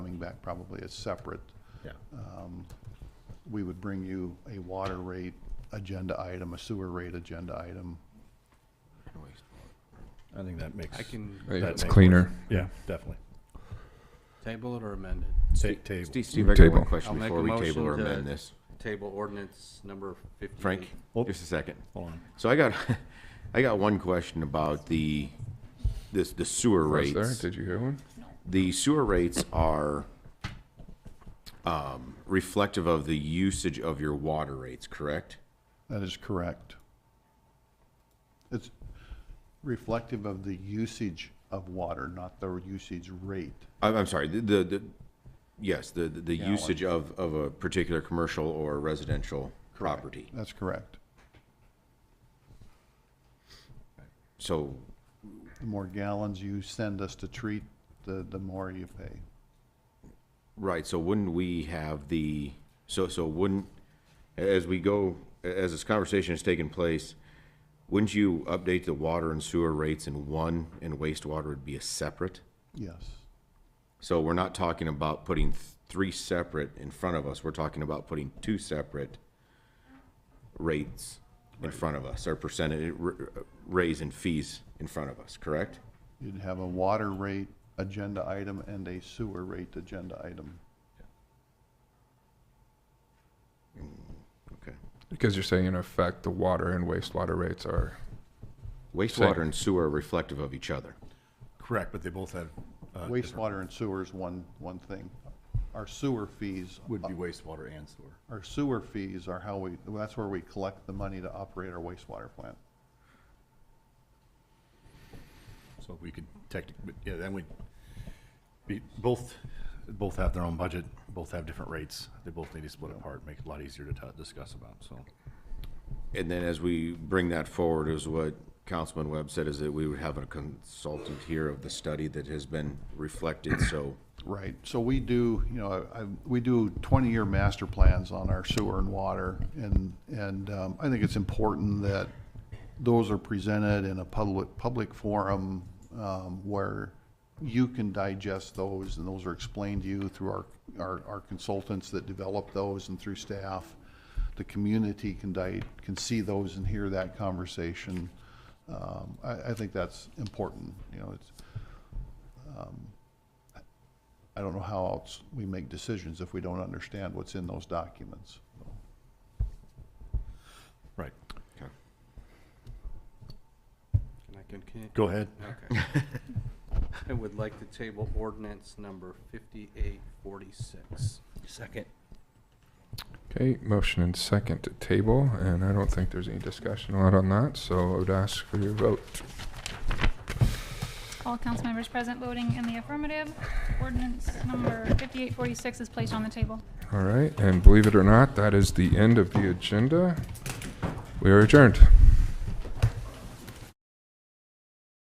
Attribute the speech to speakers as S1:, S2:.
S1: back probably is separate. um,
S2: Yeah.
S1: We would bring you a water rate agenda item, a sewer rate agenda item.
S2: I think that makes.
S3: I can
S4: Right,
S2: that
S4: it's
S2: makes
S4: cleaner.
S2: more- Yeah, definitely.
S3: table it or amend it.
S2: Take table.
S5: Steve, Steve, I got
S4: Table.
S5: one question
S3: I'll make
S5: before
S3: a
S5: we table
S3: motion
S5: or
S3: to-
S5: amend this.
S3: Table ordinance number fifty.
S5: Frank,
S2: Oh.
S5: just a second.
S2: Hold on.
S5: So I got, I got one question about the, this, the sewer
S4: Was there?
S5: rates.
S4: Did you hear one?
S5: The sewer rates are um, reflective of the usage of your water rates, correct?
S1: That is correct. It's reflective of the usage of water, not the usage rate.
S5: I'm, I'm sorry, the, the, the- yes, the, the- the usage of, of a particular commercial or residential property.
S1: That's correct.
S5: So,
S1: The more gallons you send us to treat, the, the more you pay.
S5: right, so wouldn't we have the, so, so wouldn't, as we go, as this conversation is taking place, wouldn't you update the water and sewer rates in one and wastewater would be a separate?
S1: Yes,
S5: So we're not talking about putting th- three separate in front of us, we're talking about putting two separate rates in front of us, or percentage, r- uh, raise in fees in front of us, correct?
S1: you'd have a water rate agenda item and a sewer rate agenda item.
S5: Okay.
S4: Because you're saying in effect, the water and wastewater rates are,
S5: Wastewater and sewer are reflective of each other.
S2: Correct, but they both have. uh,
S1: Wastewater and sewer is one, one thing. Our sewer fees,
S2: Would be wastewater and sewer.
S1: our sewer fees are how we, that's where we collect the money to operate our wastewater plant.
S2: So we could technically, yeah, then we, be, both, both have their own budget, both have different rates. They both need to split apart, make it a lot easier to ta- discuss about, so.
S5: And then as we bring that forward, is what Councilman Webb said, is that we would have a consultant here of the study that has been reflected, so
S1: Right, so we do, you know, I, we do twenty-year master plans on our sewer and water, and, and, um, I think it's important that those are presented in a public, public forum, um, where you can digest those, and those are explained to you through our, our, our consultants that develop those and through staff. The community can di, can see those and hear that conversation. Um, I, I think that's important, you know, it's, I don't know how else we make decisions if we don't understand what's in those documents.
S2: Right.
S3: Can I continue?
S2: Go ahead.
S3: Okay. I would like to table ordinance number fifty-eight forty-six.
S6: Second.
S4: okay, motion and second to table, and I don't think there's any discussion allowed on that, so I would ask for your vote.
S7: All council members present voting in the affirmative. Ordinance number 5846 is placed on the table.
S4: All right, and believe it or not, that is the end of the agenda. We are adjourned.